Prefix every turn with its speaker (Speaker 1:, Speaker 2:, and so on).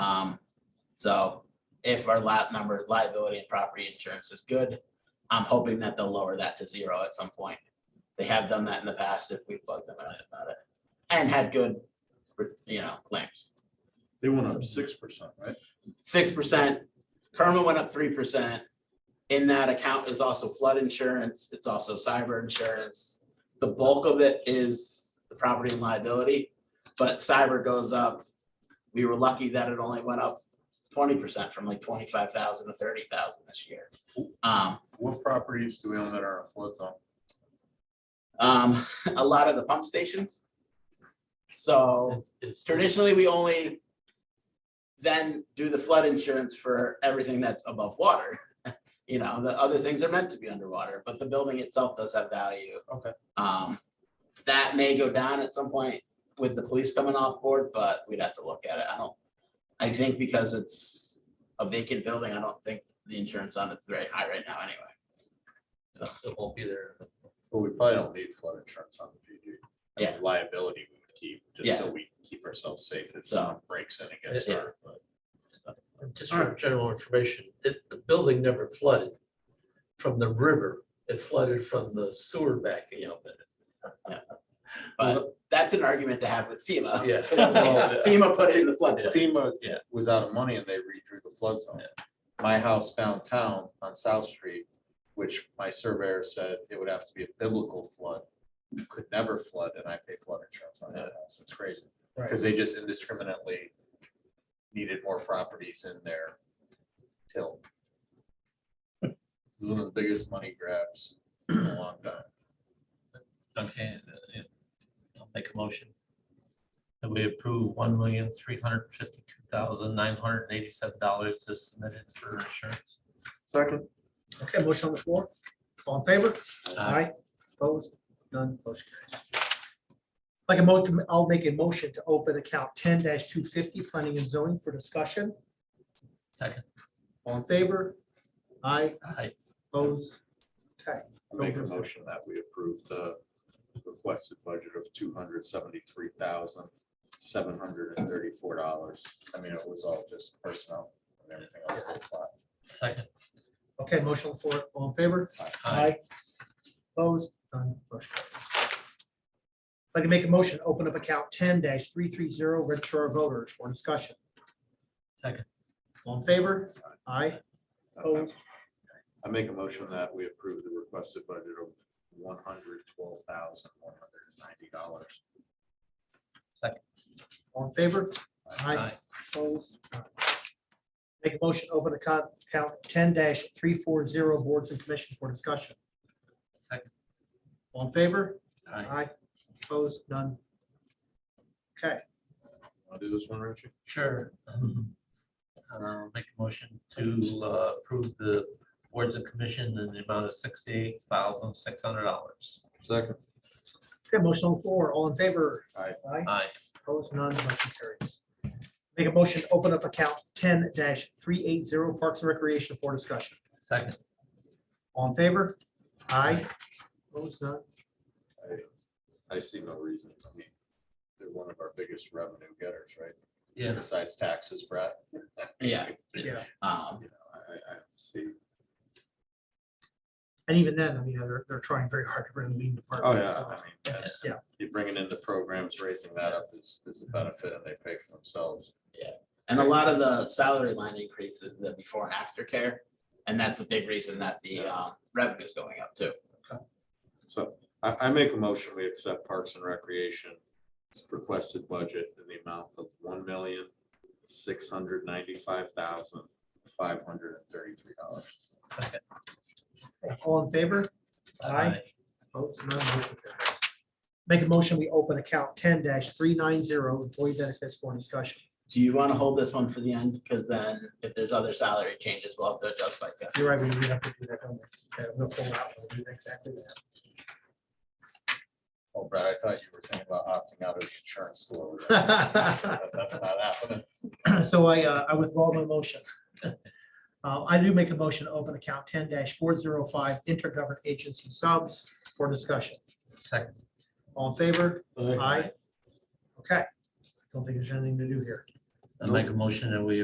Speaker 1: Um, So if our lap number liability and property insurance is good, I'm hoping that they'll lower that to zero at some point. They have done that in the past if we bugged them out about it and had good, you know, claims.
Speaker 2: They went up six percent, right?
Speaker 1: six percent. Kerma went up three percent. In that account is also flood insurance. It's also cyber insurance. The bulk of it is the property and liability, but cyber goes up. We were lucky that it only went up twenty percent from like twenty-five thousand to thirty thousand this year. Um,
Speaker 2: What properties do we own that are in flood zone?
Speaker 1: um, a lot of the pump stations. So traditionally, we only then do the flood insurance for everything that's above water. You know, the other things are meant to be underwater, but the building itself does have value.
Speaker 2: Okay.
Speaker 1: Um, that may go down at some point with the police coming off board, but we'd have to look at it. I don't, I think because it's a vacant building, I don't think the insurance on it's very high right now anyway.
Speaker 3: It won't be there.
Speaker 2: Well, we probably don't need flood insurance on the PD. I mean,
Speaker 1: Yeah.
Speaker 2: Liability we would keep, just so we keep ourselves safe if
Speaker 1: So-
Speaker 2: someone breaks in and gets
Speaker 1: Yeah.
Speaker 2: hurt. but-
Speaker 3: Just for general information, it, the building never flooded from the river. It flooded from the sewer backing up.
Speaker 1: But that's an argument to have with FEMA.
Speaker 3: Yeah.
Speaker 2: Well,
Speaker 1: FEMA put it in the flood.
Speaker 2: FEMA
Speaker 3: Yeah.
Speaker 2: was out of money and they redrew the flood zone. My house downtown on South Street, which my surveyor said it would have to be a biblical flood. Could never flood and I pay flood insurance on that house. It's crazy. Because they just indiscriminately needed more properties in their till. One of the biggest money grabs in a long time.
Speaker 3: Okay, uh, yeah. I'll make a motion. That we approve one million, three hundred fifty-two thousand, nine hundred eighty-seven dollars as submitted for insurance.
Speaker 2: Second.
Speaker 4: Okay, motion on the floor. All in favor?
Speaker 3: Aye.
Speaker 4: Opposed? None. Motion carries. Like a mo, I'll make a motion to open account ten two fifty, planning and zoning for discussion.
Speaker 3: Second.
Speaker 4: All in favor? Aye.
Speaker 3: Aye.
Speaker 4: Opposed? Okay.
Speaker 2: I Make a motion that we approve the requested budget of two hundred seventy-three thousand, seven hundred and thirty-four dollars. I mean, it was all just personnel and everything else. stayed flat.
Speaker 3: Second.
Speaker 4: Okay, motion on the floor. All in favor? Aye. Opposed? None. Motion carries. If I can make a motion, open up account ten three three zero, register our voters for discussion.
Speaker 3: Second.
Speaker 4: All in favor? Aye. Opposed?
Speaker 2: I make a motion that we approve the requested budget of one hundred twelve thousand, one hundred and ninety dollars.
Speaker 4: All in favor? Opposed? Make a motion, open account count ten three four zero boards and commissions for discussion.
Speaker 3: Second.
Speaker 4: All in favor?
Speaker 3: Aye.
Speaker 4: Opposed? None. Okay,
Speaker 2: Want to do this one, Richie?
Speaker 3: Sure. Um, I'll make a motion to uh, approve the boards of commission in the amount of sixty-eight thousand, six hundred dollars.
Speaker 2: Second.
Speaker 4: okay, motion on the floor. All in favor?
Speaker 2: Aye.
Speaker 4: Aye.
Speaker 3: Aye.
Speaker 4: Opposed? None. Motion carries. Make a motion, open up account ten three eight zero parks and recreation for discussion.
Speaker 3: Second.
Speaker 4: All in favor? Aye. Opposed? None.
Speaker 2: I see no reason. I mean, They're one of our biggest revenue getters, right?
Speaker 3: Yeah.
Speaker 2: Besides taxes, Brett.
Speaker 1: Yeah,
Speaker 4: Yeah.
Speaker 1: um,
Speaker 2: You know, I, I- I don't see.
Speaker 4: And even then, I mean, they're, they're trying very hard to bring the lean department.
Speaker 2: I
Speaker 4: so-
Speaker 2: mean, that's-
Speaker 4: Yeah,
Speaker 2: You're bringing in the programs, raising that up is, is a benefit and they pay for themselves.
Speaker 1: And a lot of the salary line increases the before and after care, and that's a big reason that the uh, revenue's going up too.
Speaker 2: So I, I make a motion, we accept Parks and Recreation requested budget in the amount of one million, six hundred ninety-five thousand, five hundred and thirty-three dollars.
Speaker 4: all in favor? Opposed? None. Motion carries. Make a motion, we open account ten three nine zero employee benefits for discussion.
Speaker 1: Do you want to hold this one for the end? Because then if there's other salary changes, we'll have to adjust like that.
Speaker 4: You're right, we we have to do that. don't we? Okay, We'll pull out, we'll do exactly that.
Speaker 2: Oh, Brad, I thought you were thinking about opting out of the insurance store. That's not happening.
Speaker 4: So I, uh, I withdraw my motion. Uh, I do make a motion, to open account ten four zero five intergovernment agency subs for discussion.
Speaker 3: Second.
Speaker 4: All in favor? Aye. Okay. Don't think there's anything to do here.
Speaker 3: I make a motion that we